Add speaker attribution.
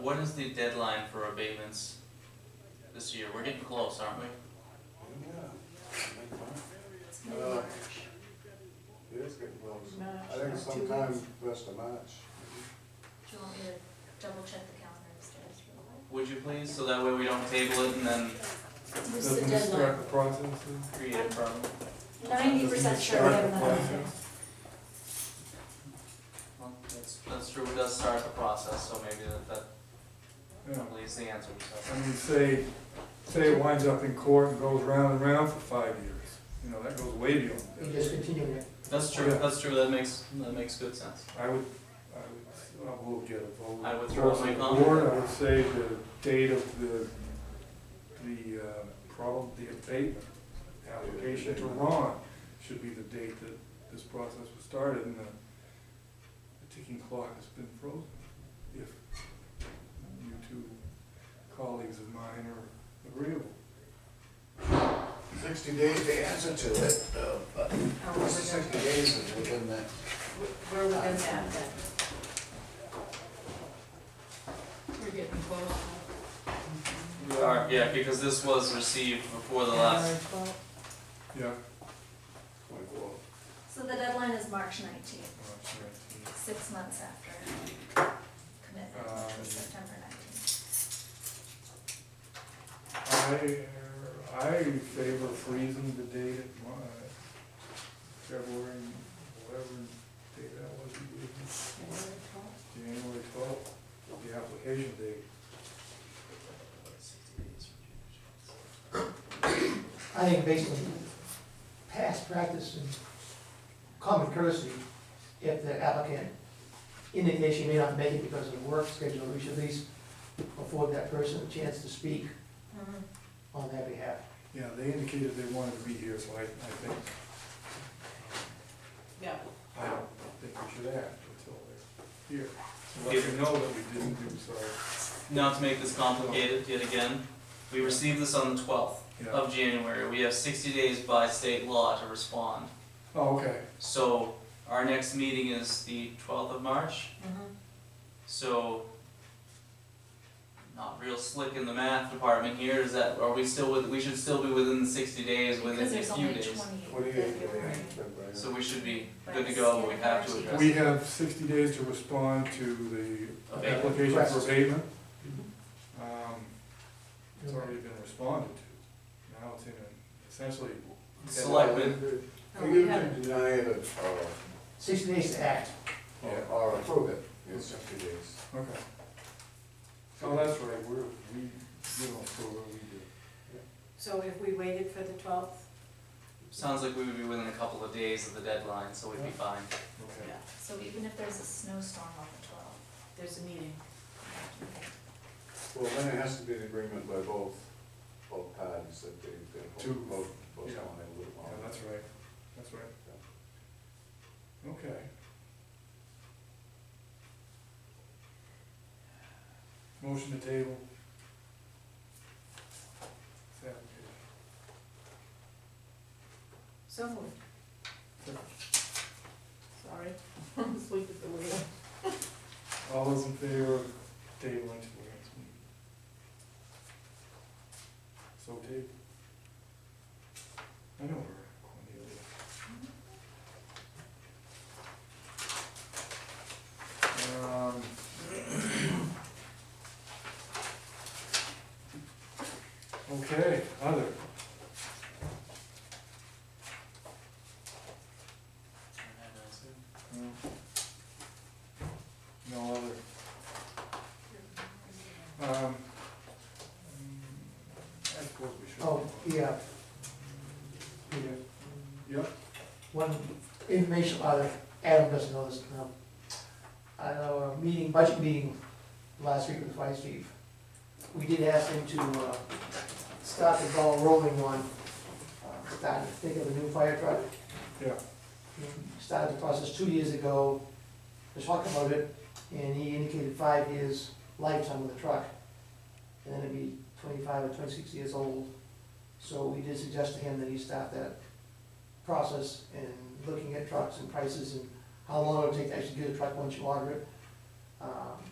Speaker 1: what is the deadline for abatements this year? We're getting close, aren't we?
Speaker 2: It's gonna be
Speaker 3: Uh,
Speaker 2: March.
Speaker 3: It is getting close.
Speaker 2: March,
Speaker 3: I think
Speaker 2: like two
Speaker 3: sometime
Speaker 2: weeks.
Speaker 3: rest of March.
Speaker 2: Do you want me to double check the calendar upstairs real quick?
Speaker 1: Would you please, so that way we don't table it and then
Speaker 2: What's the
Speaker 4: Doesn't this
Speaker 2: deadline?
Speaker 4: start the process?
Speaker 1: create a problem?
Speaker 2: Ninety percent sure we have another meeting.
Speaker 1: Well, that's, that's true, it does start the process, so maybe that, that
Speaker 4: Yeah,
Speaker 1: probably is the answer, so.
Speaker 4: I mean, say, say it winds up in court and goes round and round for five years, you know, that goes way beyond.
Speaker 5: You
Speaker 4: this.
Speaker 5: just continue it.
Speaker 1: That's true,
Speaker 4: Yeah.
Speaker 1: that's true, that makes, that makes good sense.
Speaker 4: I would, I would, I would get a vote.
Speaker 1: I withdraw my comment.
Speaker 4: Board, I would say the date of the, the, uh, problem, the abatement application to Ron should be the date that this process was started and the the ticking clock has been frozen. If you two colleagues of mine are agreeable.
Speaker 3: Sixty days to answer to it, uh, but
Speaker 2: Oh, we're
Speaker 3: this is sixty
Speaker 2: within-
Speaker 3: days is within that.
Speaker 2: We're within that then. We're getting close.
Speaker 1: We are, yeah, because this was received before the last,
Speaker 4: Yeah.
Speaker 3: twenty-four.
Speaker 2: So the deadline is March nineteenth,
Speaker 4: March 19th.
Speaker 2: six months after commitment, which was September nineteenth.
Speaker 4: I, I favor freezing the date at my, February, whatever date that was, you gave me. January twelfth, the application date.
Speaker 5: I think based on past practice and common courtesy, if the applicant indicates she may not make it because of work schedule, we should at least afford that person a chance to speak on their behalf.
Speaker 4: Yeah, they indicated they wanted to be here, so I, I think,
Speaker 6: Yeah,
Speaker 4: I don't think we should act until they're here. Let them know that we didn't do so.
Speaker 1: not to make this complicated yet again, we received this on the twelfth
Speaker 4: Yeah.
Speaker 1: of January, we have sixty days by state law to respond.
Speaker 4: Oh, okay.
Speaker 1: So, our next meeting is the twelfth of March, so not real slick in the math department here, is that, are we still with, we should still be within the sixty days, within a
Speaker 2: Because
Speaker 1: few days.
Speaker 2: there's only twenty-eight
Speaker 3: Twenty-eight
Speaker 2: February.
Speaker 3: days. February.
Speaker 1: So we should be good to go, we have to address.
Speaker 4: We have sixty days to respond to the
Speaker 1: Abatement.
Speaker 4: application for
Speaker 5: Request.
Speaker 4: abatement. Um, It's already been responded to. Now it's in, a- essentially,
Speaker 1: Selectmen,
Speaker 6: Oh,
Speaker 3: You
Speaker 6: we
Speaker 3: can
Speaker 6: haven't.
Speaker 3: deny it or-
Speaker 5: Sixty days to act.
Speaker 3: or,
Speaker 4: Yeah.
Speaker 3: or approve it in sixty days.
Speaker 4: okay. Oh, that's right, we're, we, we don't approve what we do.
Speaker 6: so if we waited for the twelfth,
Speaker 1: sounds like we would be within a couple of days of the deadline, so we'd be fine.
Speaker 4: Okay.
Speaker 6: yeah,
Speaker 2: So even if there's a snowstorm on the twelfth,
Speaker 6: there's a meeting.
Speaker 3: Well, then it has to be an agreement by both, both parties that they, they
Speaker 4: To-
Speaker 3: both, both, both
Speaker 4: yeah.
Speaker 3: want it a little
Speaker 4: Yeah,
Speaker 3: longer.
Speaker 4: that's right, that's right. Okay. Motion to table. Second.
Speaker 6: So moved. Sorry, I'm asleep at the wheel.
Speaker 4: All those in favor of tabling to the next meeting? So table. I know her, Cornelia. Um. Um, Okay, other. No. No other. Um, mm, I suppose we should.
Speaker 5: Oh, yeah. Peter,
Speaker 4: Yep,
Speaker 5: One information, uh, Adam doesn't know this, no. At our meeting, budget meeting last week with the fire chief, we did ask him to, uh, start the ball rolling on, uh, starting to think of a new fire truck.
Speaker 4: yeah,
Speaker 5: He Started the process two years ago, to talk about it, and he indicated five years lifetime of the truck. And then it'd be twenty-five or twenty-six years old. So we did suggest to him that he start that process and looking at trucks and prices and how long it would take to actually get a truck once you order it. Um,